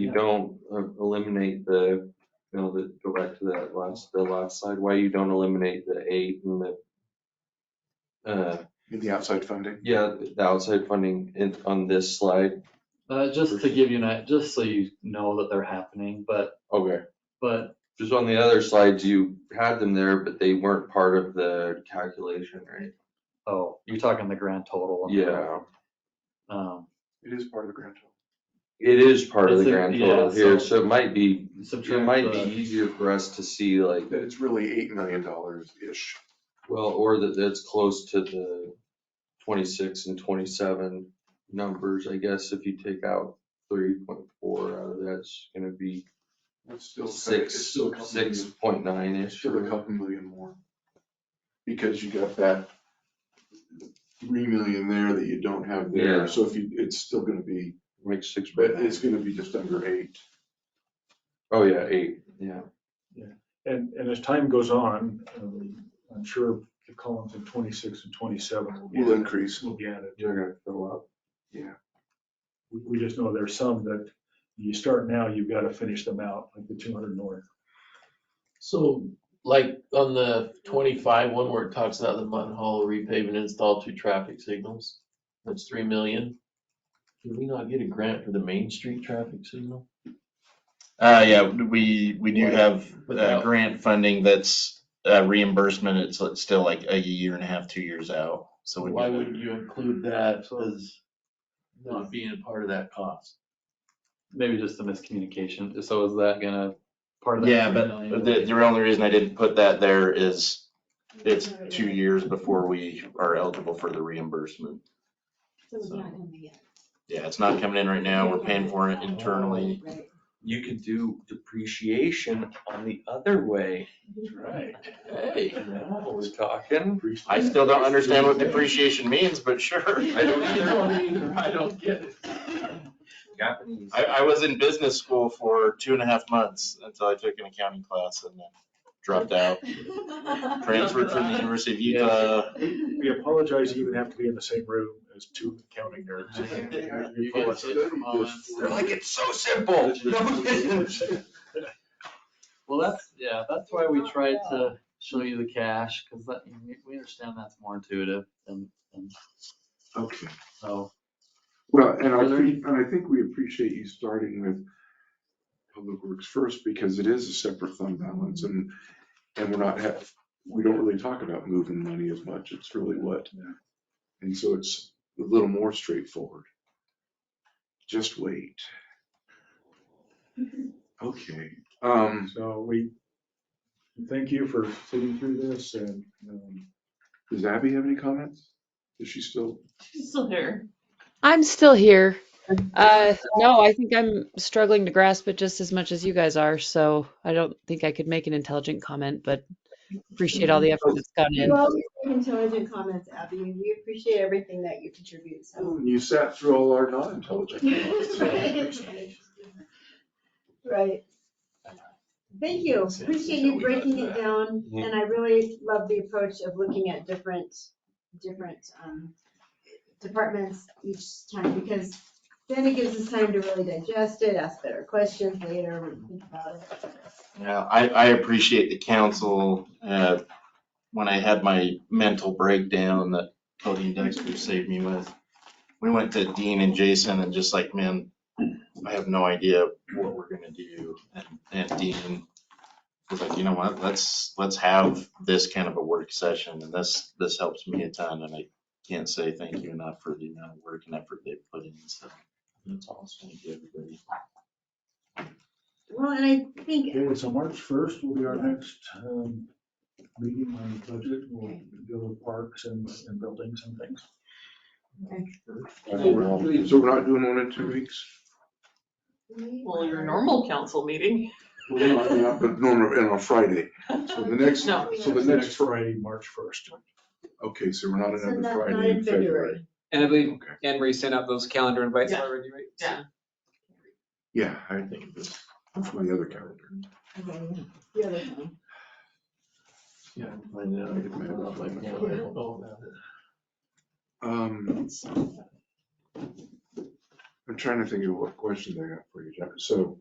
you don't uh, eliminate the, you know, the, go back to that last, the last slide, why you don't eliminate the eight and the, uh, in the outside funding. yeah, the outside funding in, on this slide, Uh, just to give you an, i- just so you know that they're happening, but, okay. but Just on the other slides, you had them there, but they weren't part of the calculation, right? Oh, you're talking the grand total. on that. Yeah, Um, It is part of the grant. it is part of the It's a- grand total yeah, here, so- so it might be, it subtract might be the, easier for us to see like, That it's really eight million dollars-ish. Well, or that that's close to the twenty-six and twenty-seven numbers, I guess, if you take out three point four out of that's gonna be It's still. it's six, still a couple six million- point nine it's ish. Still a couple million more. Because you got that three million there that you don't have Yeah. there. So if you, it's still gonna be, Makes six but point nine. it's gonna be just under eight. Oh, yeah, eight, yeah. And, and as time goes on, um, I'm sure the columns in twenty-six and twenty-seven will be, Will increase. will be added. You're gonna fill up. We, we just know there's some that you start now, you've got to finish them out, like the two hundred north. So like on the twenty-five one where it talks about the Mutton Hollow repave and install two traffic signals, that's three million. Did we not get a grant for the Main Street traffic signal? Uh, yeah, we, we do have uh, Without- grant funding that's uh, reimbursement. It's it's still like a year and a half, two years out. So we Why do would you include that as not being a part of that cost? maybe just the miscommunication. So is that gonna, part of that. that? Yeah, three but million? the, the only reason I didn't put that there is it's two years before we are eligible for the reimbursement. So it's not in the yet. Yeah, it's not coming in right now. We're paying for it internally. Right. You could do depreciation on the other way. Right. Hey, now we're talking. I still don't understand what depreciation means, but sure. I don't either. I don't get it. Japanese. I, I was in business school for two and a half months until I took an accounting class and then dropped out. Transferred from the University of Utah. We apologize, you even have to be in the same room as two accounting nerds. You guys hit from all ends. They're like, it's so simple. No, it isn't." Well, that's, yeah, that's why we tried to show you the cash, because that, we- we understand that's more intuitive and, and Okay. so. Well, and Are I there think, and I think we appreciate you starting with Public Works first because it is a separate fund balance and, and we're not have, we don't really talk about moving money as much. It's really what. And so it's a little more straightforward. Just wait. Okay, um, So we, thank you for sitting through this and, um, does Abby have any comments? Is she still? Still here. I'm still here. Uh, no, I think I'm struggling to grasp it just as much as you guys are, so I don't think I could make an intelligent comment, but appreciate all the effort that's gone in. Well, intelligent comments, Abby. We appreciate everything that you contribute, so. Oh, You sat through all our non-intelligent. comments. Right. Thank you. Appreciate you breaking it down. Yeah. And I really love the approach of looking at different, different um, departments each time because then it gives us time to really digest it, ask better questions later, think about it. Yeah, I, I appreciate the council. uh, When I had my mental breakdown that Cody and Dexter saved me with, we went to Dean and Jason and just like, man, I have no idea what we're gonna do. And- And Dean was like, you know what, let's, let's have this kind of a work session and this, this helps me a ton. And I can't say thank you enough for the amount of work and effort they put in, so. That's awesome. Thank you, everybody. Well, and I think Okay, so March first will be our next um, meeting on the budget. We'll go to parks and, and buildings and things. So we're not doing one in two weeks? Well, your normal council meeting. Well, no, I mean, I- But normally, and on Friday, so the next, so No. the next, Fri- Friday, March first. okay, so we're not So another not- not Friday in in February. February. And I believe Okay. Anne-Marie sent out those calendar invites Yeah. already, right? Yeah. Yeah, I think of this, that's my other calendar. Okay, yeah, that's fine. Yeah, I know. It might have been- Yeah, I don't know about it. Um, I'm trying to think of what questions I got for you, Jeff, so.